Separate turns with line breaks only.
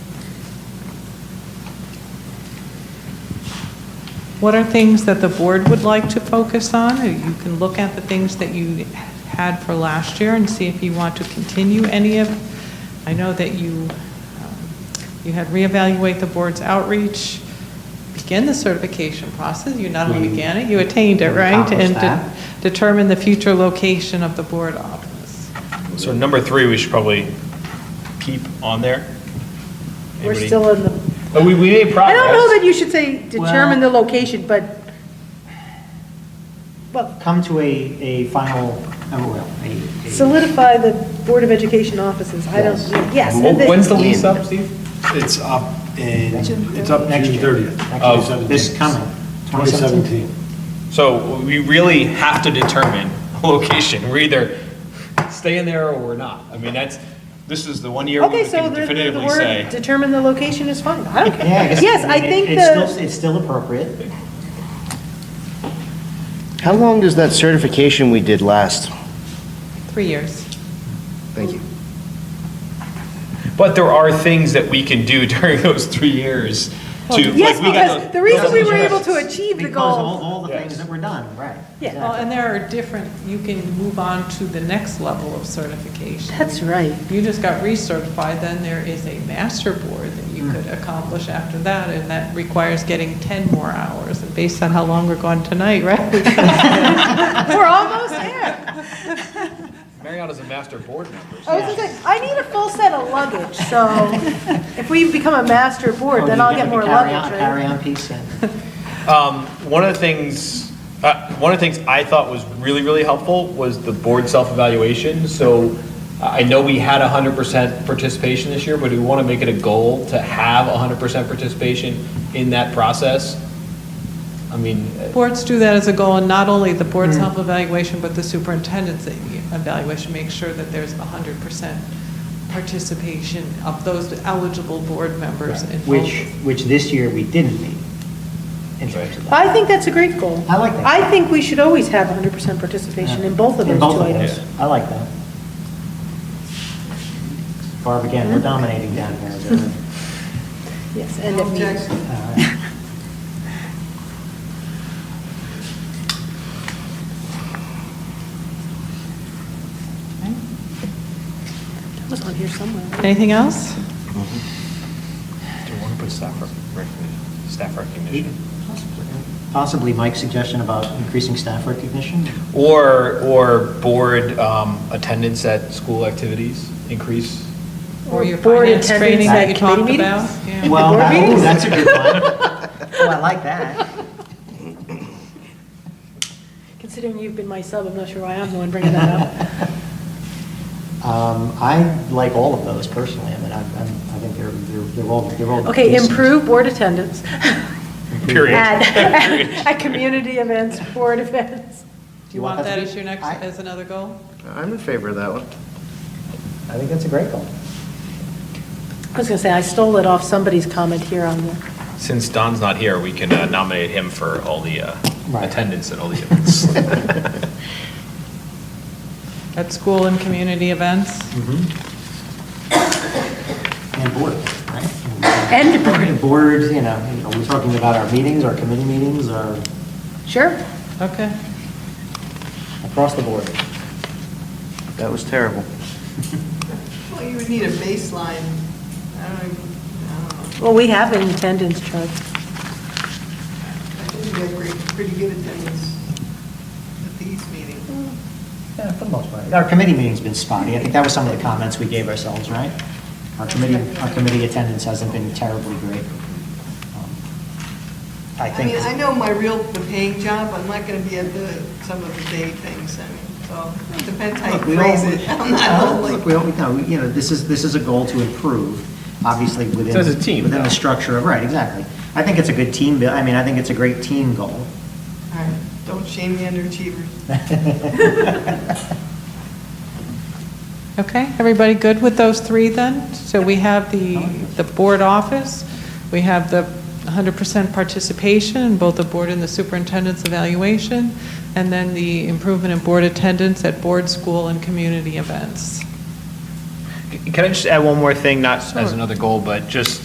What are things that the board would like to focus on? You can look at the things that you had for last year and see if you want to continue any of, I know that you, um, you had reevaluate the board's outreach, begin the certification process, you not only began it, you attained it, right?
Accomplished
And de-
that.
determine the future location of the board office.
So number three, we should probably keep on there.
We're
Anybody-
still in the,
Oh, We, we made
I
progress.
don't know that you should say determine the location, but, well,
Come to a, a final, oh, well, a- a-
solidify the Board of Education offices. I don't, yes. and
Wh- When's the
then-
lease up, Steve?
It's up in, it's up
Next
next
year.
June 30th.
Of
Actually,
this coming,
2017.
So we really have to determine a location. We're either staying there or we're not. I mean, that's, this is the one year we
Okay, so
can
the- the the
definitively
word
say.
determine the location is fine. I don't care.
Yeah, guess-
Yes, I
mean, it-
think
it's still-
the,
It's still appropriate.
How long does that certification we did last?
Three years.
Thank you.
But there are things that we can do during those three years to. like,
yes,
we got
because
those-
the reason
those
we were able
objectives.
to achieve the
Because all,
goal,
all the
Yes.
things that were done, right.
yeah,
Well, and there are different, you can move on to the next level of certification.
that's right.
If you just got recertified, then there is a master board that you
Hmm.
could accomplish after that, and that requires getting 10 more hours, and based on how long we're gone tonight, right?
We're almost there.
Marriott is a master board member.
I was gonna say, I need a full set of luggage, so if we become a master board, then
Or
I'll
Oh, you
get
the
more
carry-on-
luggage, right?
Carry-on piece and.
Um, one of the things, uh, one of the things I thought was really, really helpful was the board self-evaluation. So I know we had hundred percent participation this year, but we want to make it a goal to have hundred percent participation in that process. I mean, uh,
Boards do that as a goal, and not only the board
Hmm.
self-evaluation, but the superintendent's e-, evaluation, make sure that there's 100% participation of those eligible board members. in both.
Which, which this year we didn't meet. in terms of that.
I think that's a great goal.
I like that.
I think we should always have 100% participation in both of
In
those two items.
those. I like that. Barb, again, we're dominating down here.
Yes, and it means, it was on here somewhere.
Anything else?
do you want to put staff, rec- staff recognition?
Possibly Mike's suggestion about increasing staff recognition?
Or, or board, um, attendance at school activities increase?
Or your
Board
finance
attendance
training
at
that you talked
committee
about?
meetings?
Yeah.
Well,
board
that- ooh,
meetings?
that's a good one. Oh, I like that.
Considering you've been my sub, I'm not sure why I'm the one bringing that up.
Um, I like all of those personally. I mean, I, I'm- I think they're, they're they're all, they're all.
Okay,
decent.
improve board attendance
Period.
at, at community events, board events.
Do you want that as your next,
I-
as another goal?
I'm in favor of that one.
I think that's a great goal.
I was going to say, I stole it off somebody's comment here on the,
Since Don's not here, we can uh, nominate him for all the uh,
Right.
attendance at all the events.
At school and community events?
And board, right?
And board.
And board, you know, you know, we're talking about our meetings, our committee meetings, our,
sure?
Okay.
across the board.
That was terrible.
Well, you would need a baseline. I don't even, I don't know.
Well, we have an attendance chart.
I think we have pretty- pretty good attendance at these meetings.
Yeah, for the most part. Our committee meeting's been spotty. I think that was some of the comments we gave ourselves, right? Our committee, our committee attendance hasn't been terribly great. Um, I
I
think.
mean, I know my real, the paying job, I'm not going to be at the, some of the day things, I mean, so it depends how you
Look, we
phrase
all-
it. I'm not
Uh,
only.
Look, we all, no, we- you know, this is, this is a goal to improve, obviously within.
So as a team,
Within
though.
the structure of, right, exactly. I think it's a good team, bu- I mean, I think it's a great team goal.
All right, Don't shame the underachievers.
Okay, everybody good with those three then? So we have the, the board office, we have the 100% participation in both the board and the superintendent's evaluation, and then the improvement in board attendance at board, school, and community events.
Can I just add one more thing, not as another goal, but just